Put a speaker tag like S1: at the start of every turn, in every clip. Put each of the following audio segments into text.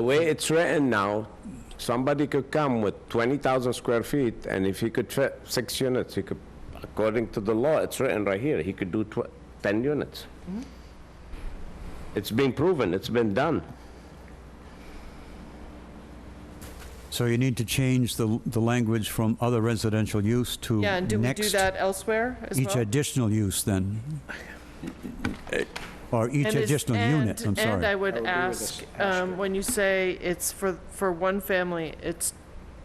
S1: The way it's written now, somebody could come with 20,000 square feet, and if he could fit six units, he could, according to the law, it's written right here, he could do tw- 10 units. It's been proven, it's been done.
S2: So you need to change the, the language from other residential use to
S3: Yeah, and do we do
S2: next
S3: that elsewhere as well?
S2: Each additional use then? Or each
S3: And is-
S2: additional
S3: and-
S2: unit, I'm
S3: And I
S2: sorry.
S1: Oh,
S3: would
S4: agree with
S3: ask,
S4: this
S3: um, when you say it's for, for one family, it's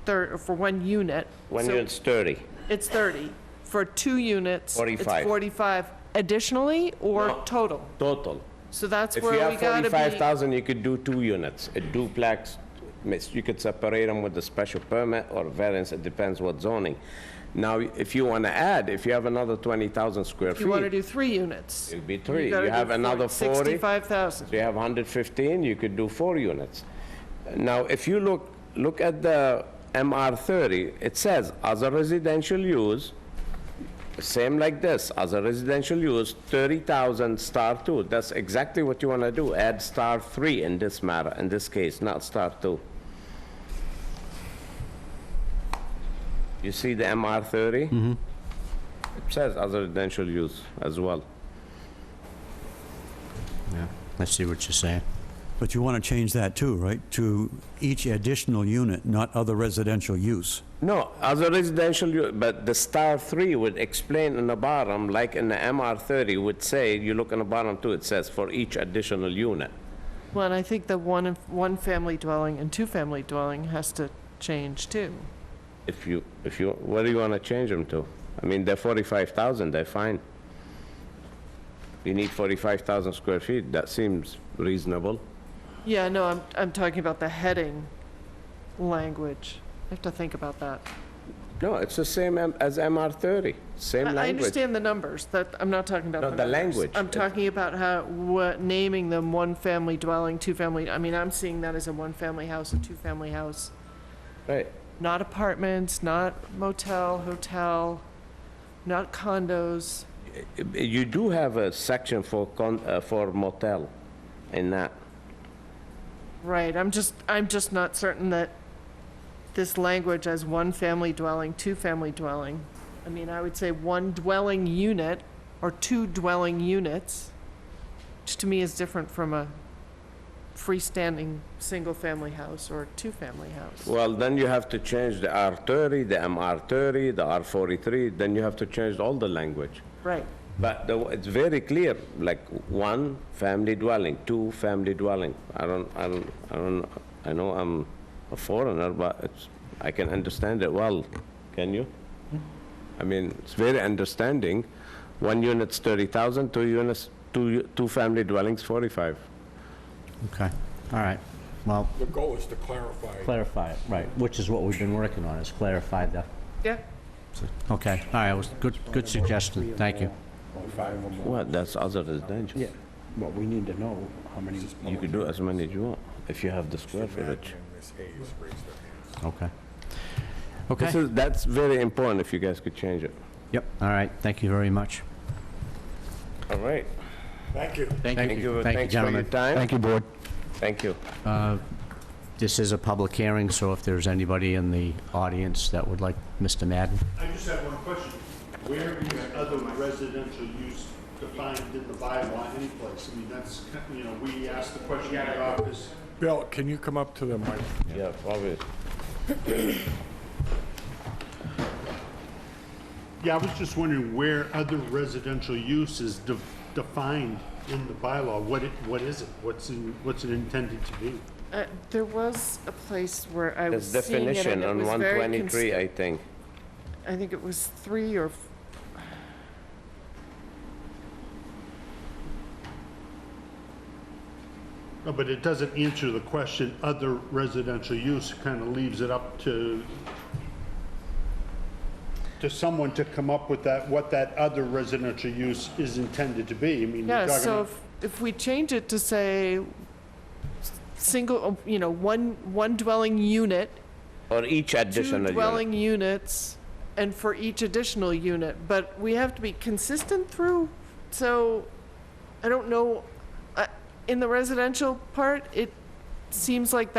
S3: thir, for one unit.
S1: When
S3: so
S1: it's 30.
S3: It's 30. For two units.
S1: 45.
S3: It's 45 additionally or total?
S1: Total.
S3: So that's
S1: If you
S3: where we
S1: have
S3: gotta be.
S1: 45,000, you could do two units, a duplex, mis- you could separate them with a special permit or variance, it depends what zoning. Now, if you want to add, if you have another 20,000 square
S3: If you want to
S1: feet,
S3: do three units.
S1: it'd be three.
S3: gotta
S1: You
S3: do
S1: have
S3: four-
S1: another 40.
S3: 65,000.
S1: So you have 115, you could do four units. Now, if you look, look at the MR30, it says, as a residential use, same like this, as a residential use, 30,000 star two. That's exactly what you want to do, add star three in this matter, in this case, not star two. You see the MR30? Mm-hmm. It says as a residential use as well.
S4: Yeah, I see what you're saying.
S2: But you want to change that too, right? To each additional unit, not other residential use.
S1: No, as a residential, u- but the star three would explain in the bottom, like in the MR thirty would say, you look in the bottom too, it says for each additional unit.
S3: Well, and I think the one, and- one family dwelling and two family dwelling has to change too.
S1: If you, if you, what do you wanna change them to? I mean, they're forty-five thousand, they're fine. You need forty-five thousand square feet, that seems reasonable.
S3: Yeah, no, I'm, I'm talking about the heading language. I have to think about that.
S1: No, it's the same M- as MR thirty, same
S3: I- I
S1: language.
S3: understand the numbers, that, I'm not talking about
S1: No,
S3: the
S1: the
S3: numbers.
S1: language.
S3: I'm
S1: It-
S3: talking about how, what, naming them one-family dwelling, two-family, I mean, I'm seeing that as a one-family house, a two-family house,
S1: Right,
S3: not apartments, not motel, hotel, not condos.
S1: you do have a section for con, uh, for motel in that.
S3: Right, I'm just, I'm just not certain that this language as one-family dwelling, two-family dwelling, I mean, I would say one dwelling unit or two dwelling units, which to me is different from a freestanding, single-family house or two-family house.
S1: Well, then you have to change the R30, the MR30, the R43, then you have to change all the language.
S3: Right,
S1: But the- it's very clear, like, one, family dwelling, two, family dwelling. I don't, I don't, I don't, I know I'm a foreigner, but it's, I can understand it well. Can you? I mean, it's very understanding. One unit's 30,000, two units, two, two family dwellings, 45.
S4: Okay, all right. Well,
S5: The goal is to clarify.
S4: clarify it, right, which is what we've been working on, is clarify the,
S3: yeah,
S4: okay, all right, was good, good suggestion, thank you.
S1: Well, that's other residential.
S6: Yeah, well, we need to know how many.
S1: You could do as many as you want, if you have the square footage.
S5: Ms. Hayes raised her hand.
S4: Okay.
S1: This
S4: Okay,
S1: is, that's very important if you guys could change it.
S4: yep, all right, thank you very much.
S1: All right.
S5: Thank you.
S1: Thank you,
S4: Thank you,
S1: thanks for your
S4: gentlemen.
S1: time.
S6: you, board.
S1: Thank you.
S4: This is a public hearing, so if there's anybody in the audience that would like, Mr. Madden?
S7: I just have one question. Where is other residential use defined in the bylaw anyplace? I mean, that's, kind- you know, we asked the question in the office.
S5: Bill, can you come up to the mic?
S1: Yeah, probably.
S7: Yeah, I was just wondering where other residential use is de- defined in the bylaw. What it, what is it? What's in, what's it intended to be?
S3: uh, there was a place where I was
S1: There's
S3: seeing it and
S1: definition
S3: it
S1: on
S3: was very. cons-
S1: 123, I think.
S3: I think it was three or. f-
S7: No, but it doesn't answer the question, other residential use, kind of leaves it up to, to someone to come up with that, what that other residential use is intended to be. I mean, you're
S3: Yeah,
S7: talking
S3: so
S7: about
S3: if, if we change it to say, s- single, um, you know, one, one dwelling unit,
S1: Or each
S3: two
S1: additional unit.
S3: dwelling units, and for each additional unit, but we have to be consistent through, so, I don't know, uh, in the residential part, it seems like